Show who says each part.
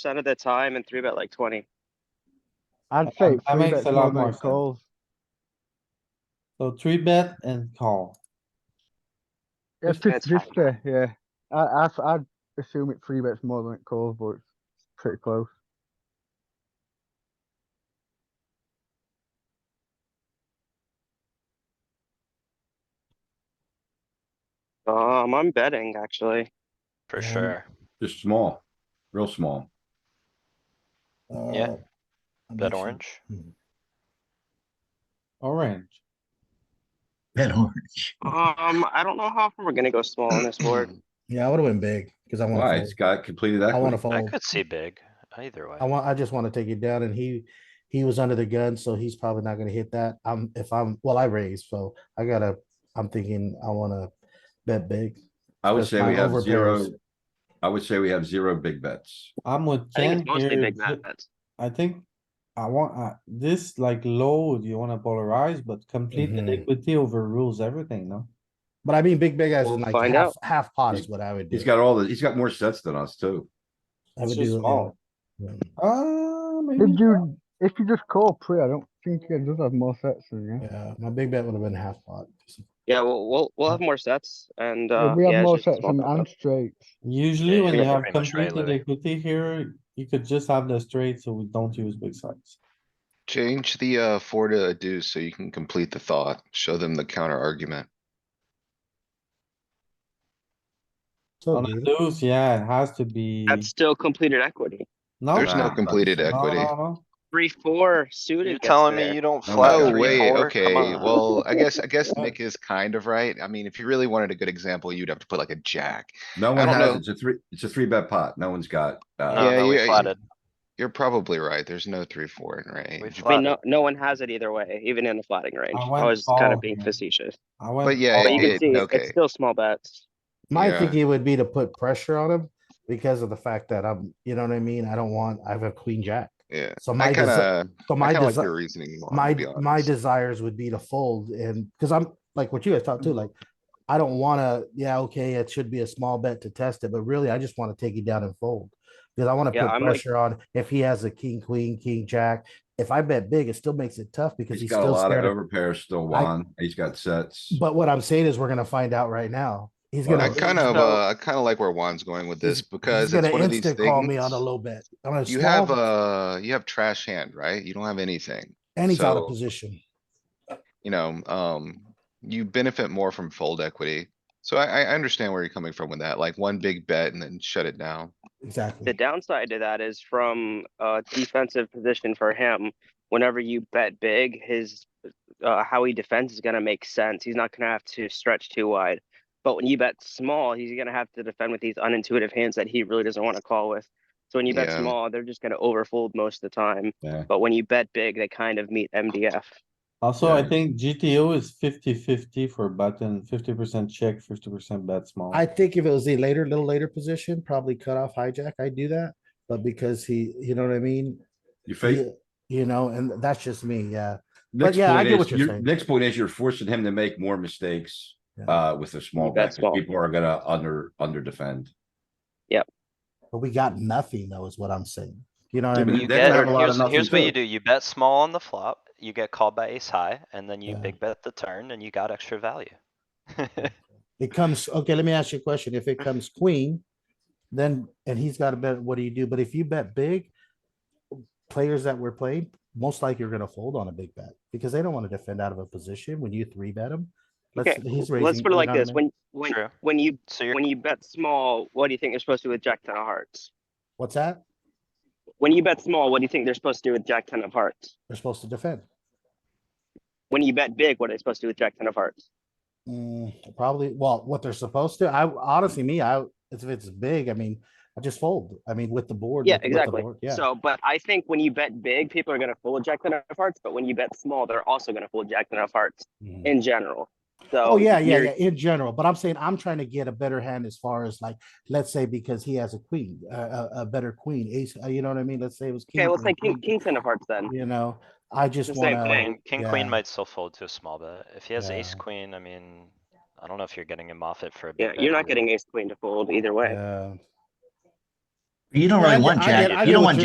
Speaker 1: percent of the time and three bet like twenty.
Speaker 2: I'd
Speaker 3: That-
Speaker 2: say
Speaker 3: that
Speaker 2: three
Speaker 3: makes
Speaker 2: bet
Speaker 3: a
Speaker 2: small
Speaker 3: lot more
Speaker 2: blind
Speaker 3: sense.
Speaker 2: calls.
Speaker 3: So three bet and call.
Speaker 2: It's
Speaker 1: Fifty
Speaker 2: fifty
Speaker 1: bet's
Speaker 2: fifty, yeah. I, I, I'd assume it three bets more than it calls, but it's pretty close.
Speaker 1: Um, I'm betting actually.
Speaker 4: for
Speaker 3: Yeah.
Speaker 4: sure.
Speaker 5: Just small, real small.
Speaker 4: Yeah.
Speaker 6: Uh, I'm
Speaker 4: Bet
Speaker 6: not sure.
Speaker 4: orange.
Speaker 3: Orange.
Speaker 6: Bet orange.
Speaker 1: Um, I don't know how often we're gonna go small on this board.
Speaker 6: Yeah, I would have went big because I
Speaker 5: Why?
Speaker 6: want
Speaker 5: It's
Speaker 6: to.
Speaker 5: got completed
Speaker 6: I want to
Speaker 5: equity.
Speaker 4: I
Speaker 6: fold.
Speaker 4: could see big either way.
Speaker 6: I want. I just want to take it down, and he he was under the gun, so he's probably not going to hit that. I'm if I'm well, I raised, so I gotta. I'm thinking I want to bet big.
Speaker 5: I would
Speaker 6: That's
Speaker 5: say we
Speaker 6: fine.
Speaker 5: have
Speaker 6: Overpairs.
Speaker 5: zero. I would say we have zero big bets.
Speaker 3: I'm with
Speaker 1: I think it's
Speaker 3: Ken
Speaker 1: mostly
Speaker 3: here.
Speaker 1: big
Speaker 3: Th-
Speaker 1: bets.
Speaker 3: I think I want, uh, this like low, you wanna polarize, but complete
Speaker 6: Mhm.
Speaker 3: equity overrules everything, no?
Speaker 6: But I mean, big big as
Speaker 1: We'll
Speaker 6: in like
Speaker 1: find
Speaker 6: half,
Speaker 1: out.
Speaker 6: half pot is
Speaker 5: He's-
Speaker 6: what I would do.
Speaker 5: He's got all the, he's got more sets than us too.
Speaker 6: I would
Speaker 3: It's just
Speaker 6: do.
Speaker 3: small.
Speaker 6: yeah.
Speaker 3: Uh, maybe.
Speaker 2: If you, if you just call pre, I don't think it does have more sets than you.
Speaker 6: Yeah, my big bet would have been half pot.
Speaker 1: Yeah, we'll, we'll, we'll have more sets and,
Speaker 2: Yeah,
Speaker 1: uh.
Speaker 2: We
Speaker 1: yeah,
Speaker 2: have
Speaker 1: it's
Speaker 2: more
Speaker 1: just a
Speaker 2: sets
Speaker 1: small
Speaker 2: than
Speaker 1: bet, though.
Speaker 2: and straights.
Speaker 3: Usually
Speaker 4: Yeah,
Speaker 3: when you
Speaker 4: you're
Speaker 3: have
Speaker 4: pretty much right,
Speaker 3: completed
Speaker 4: Louis.
Speaker 3: equity here, you could just have the straight, so we don't use big sides.
Speaker 7: Change the uh four to a deuce so you can complete the thought. Show them the counter argument.
Speaker 6: So
Speaker 3: On a deuce, yeah, it has to be.
Speaker 1: That's still completed equity.
Speaker 3: No,
Speaker 7: There's
Speaker 3: no,
Speaker 7: no
Speaker 5: that's-
Speaker 7: completed
Speaker 3: no,
Speaker 7: equity.
Speaker 3: no, no.
Speaker 1: Three, four suited
Speaker 4: You're
Speaker 1: gets
Speaker 4: telling me
Speaker 1: there.
Speaker 4: you don't
Speaker 5: Oh my
Speaker 4: flat
Speaker 5: God.
Speaker 7: Oh,
Speaker 4: three,
Speaker 7: wait,
Speaker 4: four?
Speaker 7: okay,
Speaker 4: Come on.
Speaker 7: well, I guess, I guess
Speaker 3: Yeah.
Speaker 7: Nick is kind of right. I mean, if you really wanted a good example, you'd have to put like a jack.
Speaker 5: No
Speaker 7: I
Speaker 5: one
Speaker 7: don't
Speaker 5: has,
Speaker 7: know.
Speaker 5: it's a three, it's a three bet pot. No one's got,
Speaker 4: No,
Speaker 5: uh,
Speaker 7: Yeah,
Speaker 4: no, we
Speaker 7: you-
Speaker 4: flatted.
Speaker 7: You're probably right. There's no three, four in
Speaker 4: We
Speaker 7: range.
Speaker 1: I mean,
Speaker 4: flatted.
Speaker 1: no, no one has it either way, even in the flatting range.
Speaker 3: I
Speaker 1: I
Speaker 3: went
Speaker 1: was kind
Speaker 3: all
Speaker 1: of being
Speaker 3: in.
Speaker 1: facetious.
Speaker 3: I went
Speaker 7: But yeah,
Speaker 3: all
Speaker 1: But you
Speaker 7: it
Speaker 3: in.
Speaker 1: can
Speaker 7: did,
Speaker 1: see,
Speaker 7: okay.
Speaker 1: it's still small bets.
Speaker 6: My
Speaker 7: Yeah.
Speaker 6: thinking would be to put pressure on him because of the fact that I'm, you know what I mean. I don't want. I have a queen jack.
Speaker 7: Yeah,
Speaker 6: So my
Speaker 7: I
Speaker 6: desi-
Speaker 7: kinda,
Speaker 6: so
Speaker 7: I
Speaker 6: my
Speaker 7: kinda like
Speaker 6: desire.
Speaker 7: your reasoning more,
Speaker 6: my
Speaker 7: to be
Speaker 6: my
Speaker 7: honest.
Speaker 6: desires would be to fold and because I'm like what you guys
Speaker 7: Mm-hmm.
Speaker 6: thought too, like I don't wanna, yeah, okay, it should be a small bet to test it, but really I just wanna take it down and fold. Because I wanna
Speaker 1: Yeah,
Speaker 6: put
Speaker 1: I'm like-
Speaker 6: pressure on if he has a king, queen, king, jack. If I bet big, it still makes it tough because
Speaker 5: he's
Speaker 6: he's
Speaker 5: got a
Speaker 6: still
Speaker 5: lot of
Speaker 6: scared. of-
Speaker 5: overpairs still
Speaker 6: I-
Speaker 5: won. He's got sets.
Speaker 6: But what I'm saying is we're gonna find out right now. He's
Speaker 5: Well,
Speaker 6: gonna.
Speaker 7: I kind of,
Speaker 1: So-
Speaker 7: uh, I kinda like where Juan's going with
Speaker 6: he's-
Speaker 7: this because
Speaker 6: he's
Speaker 7: it's
Speaker 6: gonna
Speaker 7: one of these
Speaker 6: instant Call me on a
Speaker 7: things.
Speaker 6: low bet. I'm gonna
Speaker 7: You have,
Speaker 6: small,
Speaker 7: uh, you have trash hand, right? You don't have anything.
Speaker 6: And he's out of
Speaker 7: so-
Speaker 6: position.
Speaker 7: you know, um, you benefit more from fold equity. So I, I understand where you're coming from with that, like one big bet and then shut it down.
Speaker 1: The
Speaker 6: Exactly.
Speaker 1: downside to that is from a defensive position for him, whenever you bet big, his, uh, how he defends is gonna make sense. He's not gonna have to stretch too wide. But when you bet small, he's gonna have to defend with these unintuitive hands that he really doesn't wanna call with. So when you bet
Speaker 7: Yeah.
Speaker 1: small, they're just gonna overfold most of the time.
Speaker 5: Yeah.
Speaker 1: But when you bet big, they kind of meet MDF.
Speaker 3: Also, I
Speaker 5: Yeah.
Speaker 3: think GTO is 50-50 for button, fifty percent check, fifty percent bet small.
Speaker 6: I think if it was the later, little later position, probably cut off hijack, I do that, but because he, you know what I mean?
Speaker 5: You fake,
Speaker 6: You you know, and that's just me, yeah.
Speaker 5: next
Speaker 6: yeah, I
Speaker 5: point
Speaker 6: get what
Speaker 5: is,
Speaker 6: you're
Speaker 5: you're-
Speaker 6: saying.
Speaker 5: next point is you're forcing him to make more mistakes,
Speaker 6: Yeah.
Speaker 5: uh, with a small
Speaker 1: bet
Speaker 5: bet. 'cause
Speaker 1: small.
Speaker 5: People are gonna under, under defend.
Speaker 6: But we got nothing though, is what I'm saying. You know what I
Speaker 5: Yeah, but
Speaker 6: mean?
Speaker 4: You
Speaker 5: They're gonna
Speaker 4: get,
Speaker 5: have a lot of
Speaker 4: here's,
Speaker 5: nothing
Speaker 4: here's what
Speaker 5: too.
Speaker 4: you do. You bet small on the flop, you get called by ace high, and then you
Speaker 6: Yeah.
Speaker 4: big bet the turn and you got extra value.
Speaker 6: It comes, okay, let me ask you a question. If it comes queen, then, and he's got a bet, what do you do? But if you bet big, players that were played, most likely you're gonna fold on a big bet because they don't want to defend out of a position when you three bet them.
Speaker 1: Okay, let's put it like this, when, when,
Speaker 4: True.
Speaker 1: when you,
Speaker 4: So you're,
Speaker 1: when you bet small, what do you think they're supposed to do with jack ten of hearts?
Speaker 6: What's that?
Speaker 1: When you bet small, what do you think they're supposed to do with jack ten of hearts?
Speaker 6: They're supposed to defend.
Speaker 1: When you bet big, what are they supposed to do with jack ten of hearts?
Speaker 6: Mm, probably, well, what they're supposed to, I honestly, me, I, if it's big, I mean, I just fold, I mean, with the board.
Speaker 1: Yeah,
Speaker 6: with- with the
Speaker 1: exactly.
Speaker 6: board, Yeah,
Speaker 1: So, but I think when you bet big, people are gonna fold jack ten of hearts, but when you bet small, they're also gonna fold jack ten of hearts
Speaker 6: Mhm.
Speaker 1: in general. So.
Speaker 6: oh, yeah, yeah,
Speaker 1: you're-
Speaker 6: yeah, in general, but I'm saying I'm trying to get a better hand as far as like, let's say because he has a queen, a, a, a better queen, ace, uh, you know what I mean, let's say it was.
Speaker 1: Okay, let's say
Speaker 6: queen,
Speaker 1: king,
Speaker 6: queen,
Speaker 1: king ten of hearts then.
Speaker 6: You know, I just
Speaker 1: the same
Speaker 6: wanna,
Speaker 4: king, king queen
Speaker 6: yeah.
Speaker 4: might still fold to a small bet. If he has ace
Speaker 6: Yeah.
Speaker 4: queen, I mean, I don't know if you're getting him off it for a
Speaker 1: Yeah,
Speaker 4: big bet.
Speaker 1: you're not getting ace queen to fold either way.
Speaker 6: yeah.
Speaker 8: You don't
Speaker 6: Yeah, I
Speaker 8: really
Speaker 6: get-
Speaker 8: want
Speaker 6: I get- I
Speaker 8: jack,
Speaker 6: get
Speaker 8: you don't
Speaker 6: what
Speaker 8: want
Speaker 6: you're